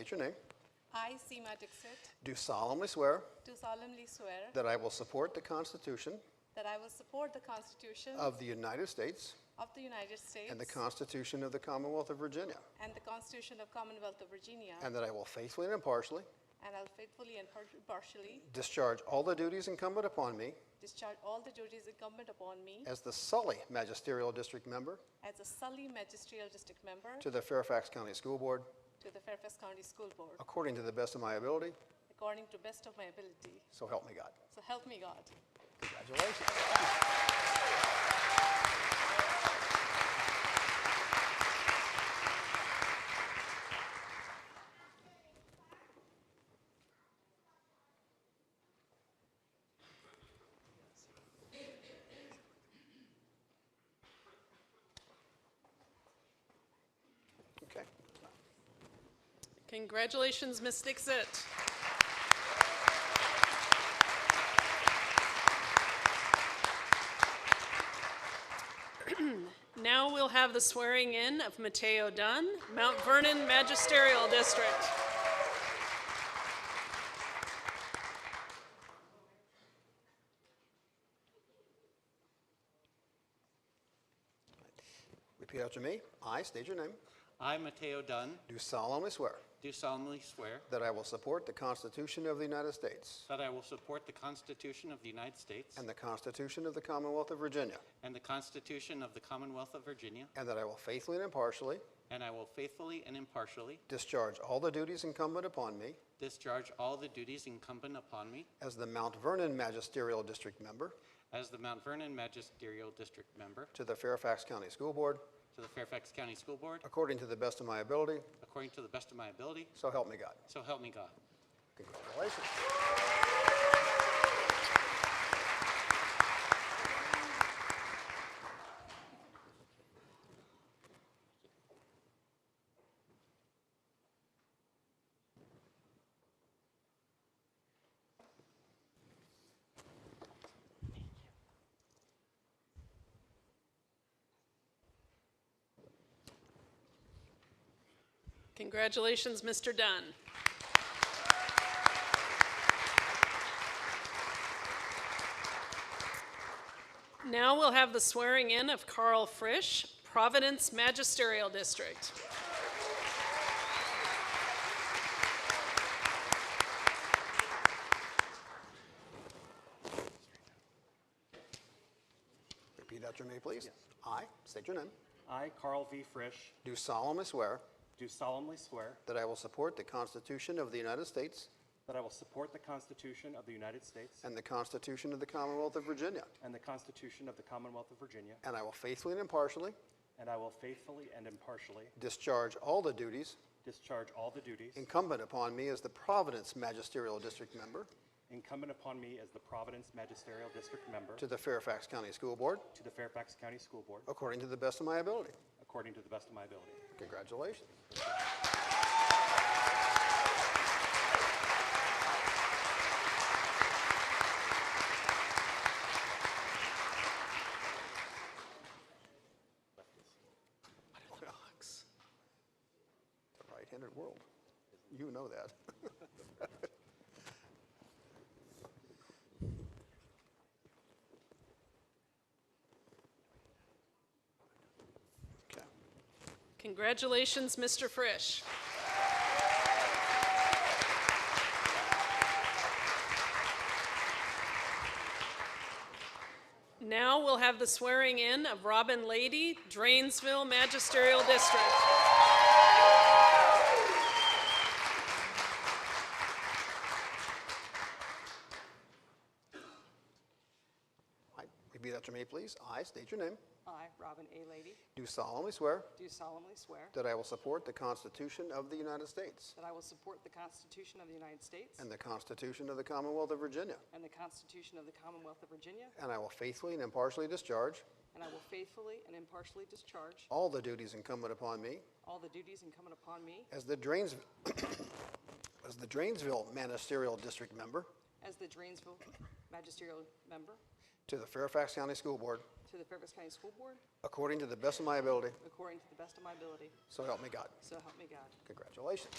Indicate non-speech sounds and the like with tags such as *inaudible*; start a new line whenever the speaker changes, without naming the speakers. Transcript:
State your name.
I, Seema Dixit,
Do solemnly swear
do solemnly swear
that I will support the Constitution
that I will support the Constitution
of the United States
of the United States
and the Constitution of the Commonwealth of Virginia,
and the Constitution of Commonwealth of Virginia,
and that I will faithfully and impartially
and I'll faithfully and par- partially
discharge all the duties incumbent upon me
discharge all the duties incumbent upon me
as the Sully Magisterial District Member
as a Sully Magisterial District Member
to the Fairfax County School Board
to the Fairfax County School Board,
according to the best of my ability,
according to best of my ability.
so help me God.
So help me God.
Congratulations. Okay.
Congratulations, Ms. Dixit. *clears throat* Now we'll have the swearing in of Mateo Dunn, Mount Vernon Magisterial District.
Repeat after me. I state your name.
I, Mateo Dunn,
Do solemnly swear
do solemnly swear
that I will support the Constitution of the United States
that I will support the Constitution of the United States
and the Constitution of the Commonwealth of Virginia,
and the Constitution of the Commonwealth of Virginia,
and that I will faithfully and impartially
and I will faithfully and impartially
discharge all the duties incumbent upon me
discharge all the duties incumbent upon me
as the Mount Vernon Magisterial District Member
as the Mount Vernon Magisterial District Member
to the Fairfax County School Board,
to the Fairfax County School Board,
according to the best of my ability,
according to the best of my ability,
so help me God.
so help me God.
Congratulations.
Congratulations, Mr. Dunn. Now we'll have the swearing in of Carl Frisch, Providence Magisterial District.
Repeat after me, please. I state your name.
I, Carl V. Frisch,
Do solemnly swear
do solemnly swear
that I will support the Constitution of the United States
that I will support the Constitution of the United States
and the Constitution of the Commonwealth of Virginia,
and the Constitution of the Commonwealth of Virginia,
and I will faithfully and impartially
and I will faithfully and impartially
discharge all the duties
discharge all the duties
incumbent upon me as the Providence Magisterial District Member
incumbent upon me as the Providence Magisterial District Member
to Oh. the Fairfax County School Board,
to the Fairfax County School Board,
according to the best of my ability.
according to the best of my ability.
Congratulations. Relax. It's a right-handed world. You know that. *laughs* Okay.
Congratulations, Mr. Frisch. Now we'll have the swearing in of Robin Lady, Drainsville Magisterial District.
I- Repeat after me, please. I state your name.
I, Robin A. Lady,
Do solemnly swear
do solemnly swear
that I will support the Constitution of the United States
that I will support the Constitution of the United States
and the Constitution of the Commonwealth of Virginia,
and the Constitution of the Commonwealth of Virginia,
and I will faithfully and impartially discharge
and I will faithfully and impartially discharge
all the duties incumbent upon me
all the duties incumbent upon me
as the Drains, *coughs* as the Drainsville Magisterial District Member
as the Drainsville Magisterial Member
to the Fairfax County School Board
to the Fairfax County School Board
according to the best of my ability,
according to the best of my ability.
so help me God.
So help me God.
Congratulations.